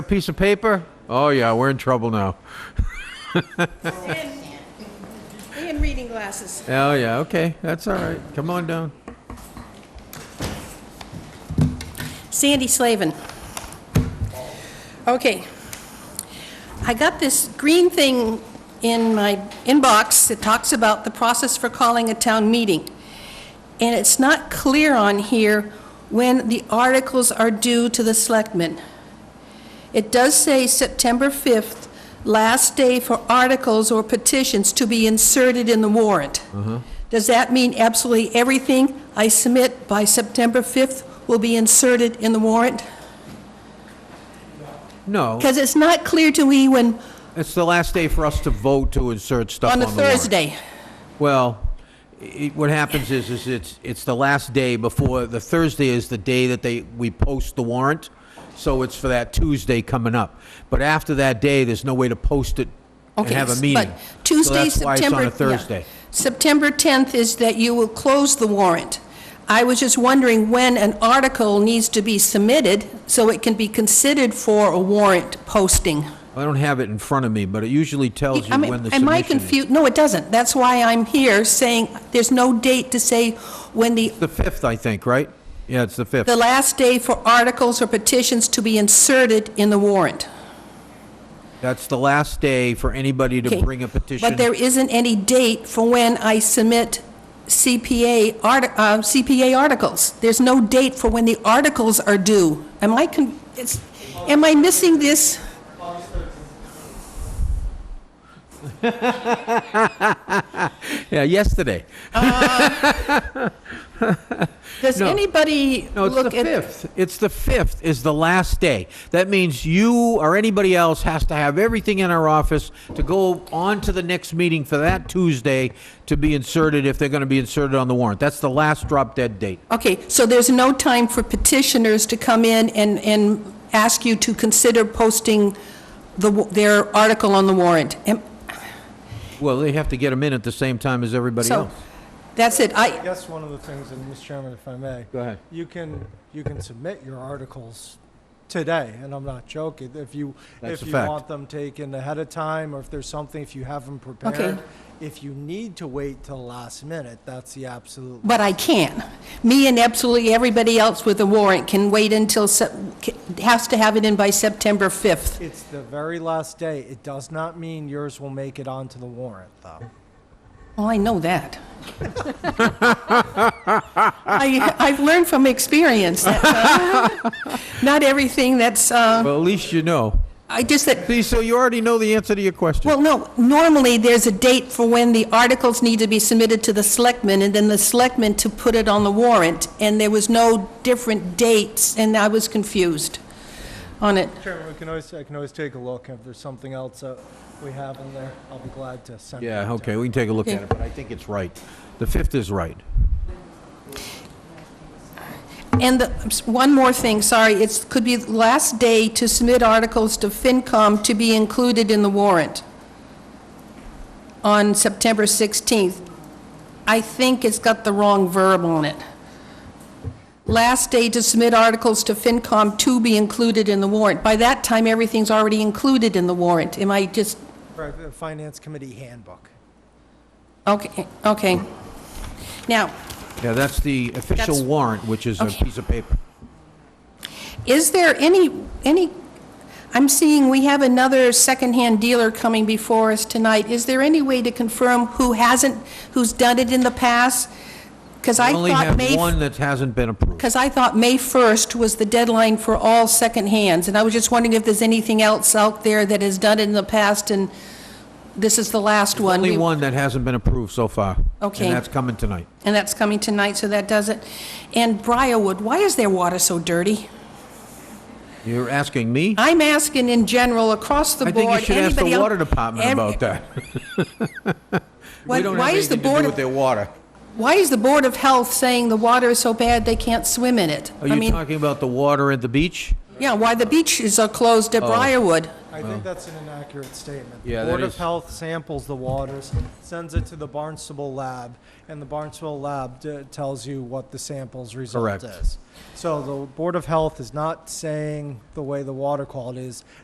A piece of paper? Oh, yeah, we're in trouble now. And and reading glasses. Oh, yeah, okay, that's all right. Come on down. Sandy Slavin. Okay. I got this green thing in my inbox that talks about the process for calling a town meeting. And it's not clear on here when the articles are due to the selectmen. It does say September 5th, last day for articles or petitions to be inserted in the warrant. Mm-hmm. Does that mean absolutely everything I submit by September 5th will be inserted in the warrant? No, Because it's not clear to me when, it's the last day for us to vote to insert stuff on on the a warrant. Thursday. Well, it, what happens is, is it's, it's the last day before, the Thursday is the day that they, we post the warrant, so it's for that Tuesday coming up. But after that day, there's no way to post it and Okay, have a s- meeting. But Tuesday, So that's why September... it's on yeah. a Thursday. September 10th is that you will close the warrant. I was just wondering when an article needs to be submitted so it can be considered for a warrant posting. I don't have it in front of me, but it usually tells you I mean, when the submission is. Am I confused? No, it doesn't. That's why I'm here saying, there's no date to say when the, The 5th, I think, right? Yeah, it's the 5th. the last day for articles or petitions to be inserted in the warrant. That's the last day for anybody to Okay. bring a petition. But there isn't any date for when I submit CPA, art- uh, CPA articles. There's no date for when the articles are due. Am I, con- it's- am I missing this? Yeah, yesterday. Does No. anybody No, it's the look at? 5th. It's the 5th is the last day. That means you or anybody else has to have everything in our office to go on to the next meeting for that Tuesday to be inserted if they're going to be inserted on the warrant. That's the last drop dead date. Okay, so there's no time for petitioners to come in and, and ask you to consider posting the, wa- their article on the warrant? Am- Well, they have to get them in at the same time as everybody So, else. that's it. I, That's one of the things, and Mr. Chairman, if I may, Go ahead. you can, you can submit your articles today, and I'm not joking. If you, That's if a you fact. want them taken ahead of time, or if there's something, if you have them prepared. If you need to wait till the last minute, that's the absolute. but I can. Me and absolutely everybody else with a warrant can wait until, Sep- ca- has to have it in by September 5th. It's the very last day. It does not mean yours will make it onto the warrant, though. Well, I know that. I, I've learned from experience that, uh, not everything that's, uh, Well, at least you know. I just, that See, so you already know the answer to your question. Well, no, normally, there's a date for when the articles need to be submitted to the selectmen, and then the selectmen to put it on the warrant, and there was no different dates, and I was confused on it. Chairman, we can always, I can always take a look. If there's something else that we have in there, I'll be glad to send. it Yeah, to okay, we can take a look at Okay. it, but I think it's right. The 5th is right. And the, one more thing, sorry, it's, could be the last day to submit articles to FinCom to be included in the warrant on September 16th. I think it's got the wrong verb on it. Last day to submit articles to FinCom to be included in the warrant. By that time, everything's already included in the warrant. Am I just, Right, the Finance Committee Handbook. okay, okay. Now, Yeah, that's the official That's- warrant, which is a Okay. piece of paper. Is there any, any, I'm seeing we have another secondhand dealer coming before us tonight. Is there any way to confirm who hasn't, who's done it in the past? Because I We only thought have May, one that hasn't been approved. because I thought May 1st was the deadline for all secondhands, and I was just wondering if there's anything else out there that has done it in the past, and this is the last one. Only We- one that hasn't been approved so far. Okay. And that's coming tonight. And that's coming tonight, so that does it. And Briarwood, why is their water so dirty? You're asking me? I'm asking in general, across the I board, think you anybody should ask the el- water department ev- about that. Why We don't have why is the anything to Board do of, with their water. why is the Board of Health saying the water is so bad they can't swim in it? Are I you mean, talking about the water at the beach? Yeah, why the beaches are closed Oh. at Briarwood. I think that's an inaccurate statement. The Yeah, that Board of is- Health samples the waters, sends it to the Barnstable lab, and the Barnstable lab d- tells you what the sample's result Correct. is. So the Board of Health is not saying the way the water quality is,